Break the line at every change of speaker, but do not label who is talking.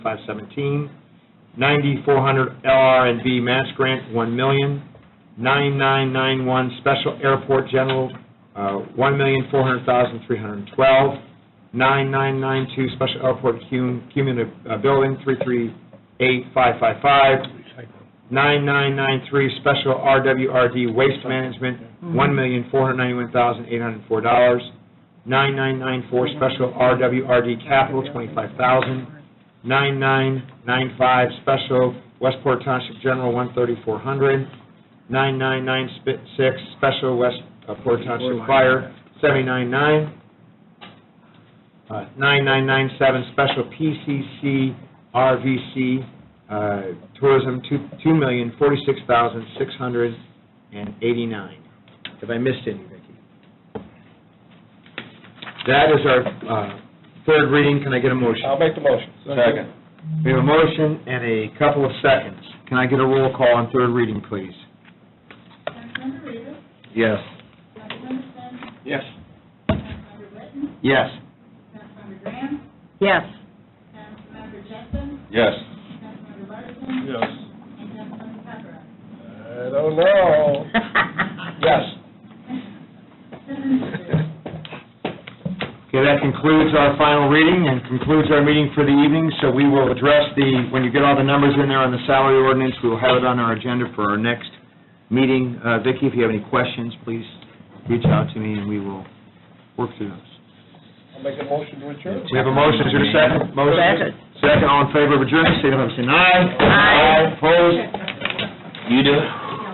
517. 9400 LRNB Mass Grant, 1 million. 9991 Special Airport General, uh, 1,400,312. 9992 Special Airport cum- Cumulative uh, Building, 338555. 9993 Special RWRD Waste Management, $1,491,804. 9994 Special RWRD Capital, 25000 9995 Special Westport Township General, 13400 9996 Special Westport Township Fire, 799 uh, 9997 Special PCC RVC uh, Tourism, two two million forty-six thousand six hundred and eighty-nine. Have I missed any, Vicki? That is our uh, third reading. Can I get a motion?
I'll make the motion.
Second. We have a motion and a couple of seconds. Can I get a roll call on third reading, please?
Councilmember Reavis,
Yes.
Councilmember Smith,
Yes.
Councilmember Whitten,
Yes.
Councilmember Graham,
Yes.
Councilmember Justin,
Yes.
Councilmember Larson,
Yes.
and Councilmember Papera.
I don't know. Yes.
Seven yeses.
Okay, that concludes our final reading and concludes our meeting for the evening, so we will address the, when you get all the numbers in there on the salary ordinance, we will have it on our agenda for our next meeting. Uh, Vicki, if you have any questions, please reach out to me, and we will work through those.
I'll make a motion to adjourn.
We have a motion, is there a second? Motion.
Second.
Second, all in favor of adjournment, say aye.
Aye.
Opposed? You do it.